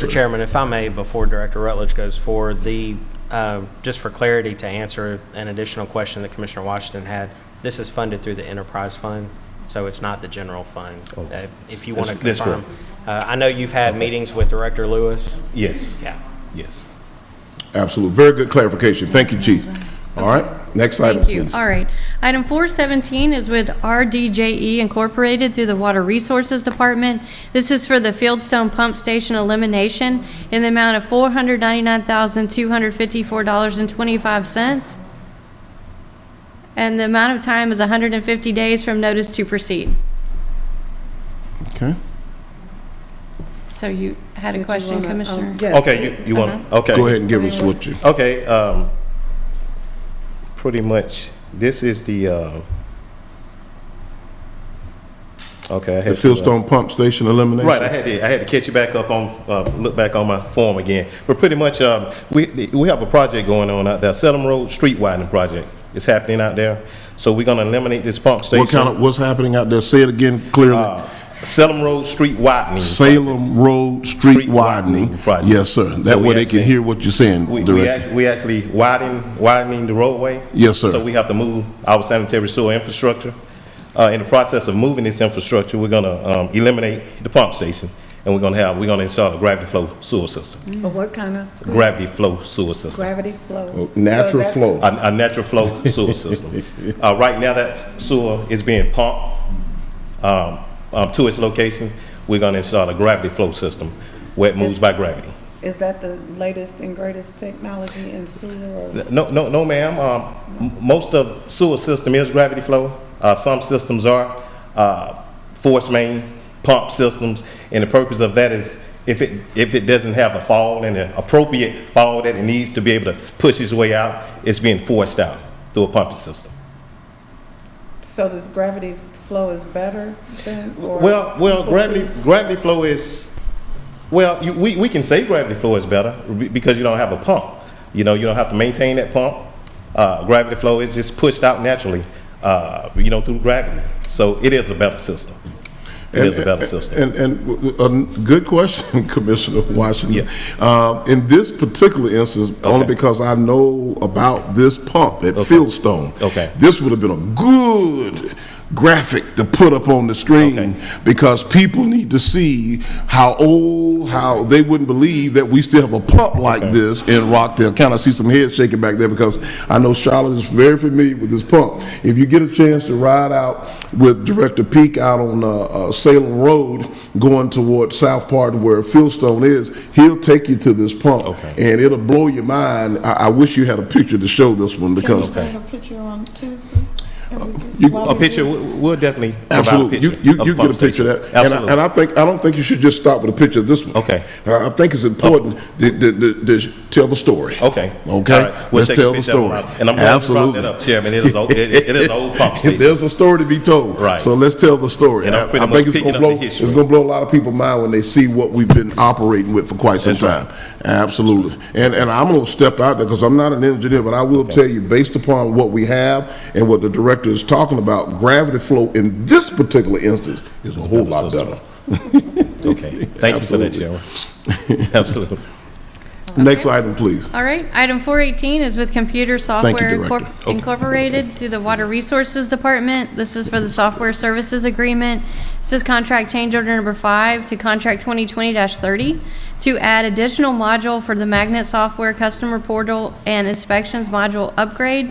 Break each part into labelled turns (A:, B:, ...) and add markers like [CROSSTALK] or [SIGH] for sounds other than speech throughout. A: Mr. Chairman, if I may, before Director Rutledge goes forward, the, uh, just for clarity, to answer an additional question that Commissioner Washington had, this is funded through the enterprise fund, so it's not the general fund. Uh, If you want to
B: Oh. That's- that's
A: confirm. Uh, I know you've had meetings with Director Lewis.
B: Yes,
A: Yeah.
B: yes.
C: Absolutely. Very good clarification. Thank you, Chief. All right, next item,
D: Thank you.
C: please.
D: All right. Item 417 is with RDJE E Incorporated through the Water Resources Department. This is for the Fieldstone Pump Station elimination in the amount of $499,254.25. And the amount of time is 150 days from notice to proceed.
C: Okay.
D: So you had a
E: you
D: question,
E: wanna, um,
D: Commissioner?
E: yes.
B: Okay, you, you want, to okay.
C: Go ahead and give us what you,
B: Okay, um, pretty much, this is the, um, okay. I
C: the
B: had to, uh,
C: Fieldstone Pump Station elimination?
B: Right, I had to, I had to catch you back up on, uh, look back on my form again. But pretty much, um, we, we have a project going on out there, Salem Road Street Widening Project. It's happening out there. So we're gonna eliminate this pump station.
C: What kind of, what's happening out there? Say it again clearly.
B: Uh, Salem Road Street Widening.
C: Salem Road Street
B: Street widening
C: widening.
B: project.
C: Yes, sir.
B: So
C: That
B: we
C: way they can
B: actually-
C: hear what you're
B: We,
C: saying,
B: we
C: Director.
B: act- we actually widen, widening the roadway.
C: Yes, sir.
B: So we have to move our sanitary sewer infrastructure. Uh, in the process of moving this infrastructure, we're gonna, um, eliminate the pump station. And we're gonna have, we're gonna install a gravity flow sewer system,
E: But what kind of sewer?
B: gravity flow sewer system.
E: Gravity flow.
C: Oh, natural
E: So that's-
C: flow.
B: a, a natural flow sewer system. Uh, right now, that sewer is being pumped um, um, to its location. We're going to install a gravity flow system where it moves by gravity.
E: Is that the latest and greatest technology in sewer? or-
B: No, no, no, ma'am. Um, m- most of sewer system is gravity flow. Uh, some systems are uh, force main pump systems, and the purpose of that is if it if it doesn't have a fall and an appropriate fall that it needs to be able to push its way out, it's being forced out through a pumping system.
E: So this gravity flow is better than? or-
B: Well, well,
E: equal to-
B: gravity, gravity flow is, well, you, we, we can say gravity flow is better be- because you don't have a pump. You know, you don't have to maintain that pump. Uh, gravity flow is just pushed out naturally, uh, you know, through gravity. So it is a better system. It is a better system.
C: And, and w- w- a good question, [LAUGHS] Commissioner Washington.
B: Yeah.
C: Uh, In this particular instance, only
B: Okay.
C: because I know about this pump at Fieldstone.
B: Okay.
C: This would have been a good graphic to put up on the screen
B: Okay.
C: because people need to see how old, how, they wouldn't believe that we still have a pump like this in Rockdale County. I see some heads shaking back there because I know Charlotte is very familiar with this pump. If you get a chance to ride out with Director Peak out on uh, uh, Salem Road going toward South Part where Fieldstone is, he'll take you to this pump.
B: Okay.
C: And it'll blow your mind. I, I wish you had a picture to show this one
E: Can we
C: because
E: have a picture on Tuesday? And we can-
C: you-
E: while
B: A
E: we
B: picture,
E: do-
B: we- we'll definitely provide a
C: Absolutely. You,
B: picture.
C: you,
B: of
C: you
B: the pump
C: get a picture
B: station.
C: of that. And I-
B: Absolutely.
C: And I think, I don't think you should just stop with a picture of this one.
B: Okay.
C: Uh, I think it's important to, to, to, to tell the story.
B: Okay. All
C: Okay?
B: right. We'll
C: Let's
B: take a
C: tell the
B: picture of
C: story.
B: it. And I'm glad you brought that up, Chairman. It is a- it- it is a
C: [LAUGHS]
B: old pump station.
C: There's a story to be told.
B: Right.
C: So let's tell the story.
B: And I'm
C: I- I
B: pretty
C: think
B: much
C: it's
B: picking
C: gonna
B: up the
C: blow-
B: history.
C: It's gonna blow a lot of people mind when they see what we've been operating with for quite some
B: That's right.
C: time. Absolutely. And, and I'm gonna step out there, because I'm not an engineer, but I will tell you, based upon what we have and what the director is talking about, gravity flow in this particular instance is a whole
B: better
C: lot
B: system.
C: better.
B: Okay. Thank you for that, Chairman. Absolutely.
C: Next item, please.
D: All right, item 418 is with Computer
C: you,
D: Software Incorpor-
C: Director. Okay.
D: Incorporated through the Water Resources Department. This is for the software services agreement. This is contract change order number five to contract 2020-30 to add additional module for the Magnet Software Customer Portal and Inspections Module Upgrade,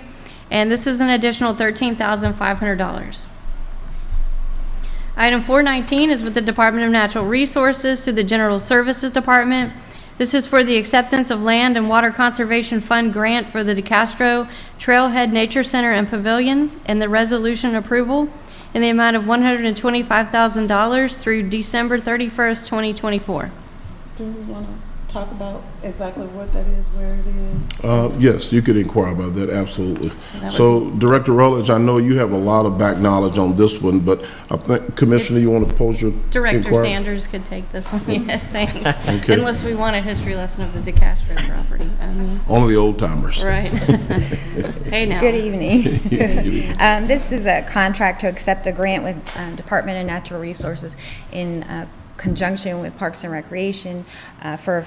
D: and this is an additional $13,500. Item 419 is with the Department of Natural Resources to the General Services Department. This is for the acceptance of Land and Water Conservation Fund grant for the DeCastro Trailhead Nature Center and Pavilion and the resolution approval in the amount of $125,000 through December 31st, 2024.
E: Do we want to talk about exactly what that is, where it is?
C: Uh, Yes, you could inquire about that, absolutely.
D: that
C: So Director Rutledge, I know you have a lot of back knowledge on this one, but I think Commissioner, you want to pose your
D: Director
C: inquiry?
D: Sanders could take this one, [LAUGHS] yes, thanks.
C: Okay.
D: Unless we want a history lesson of the DeCastro property, I mean,
C: Only the old timers.
D: right. [LAUGHS] Hey now.
F: Good [LAUGHS] evening. Um, This is a contract to accept a grant with um, Department of Natural Resources in uh, conjunction with Parks and Recreation uh, for a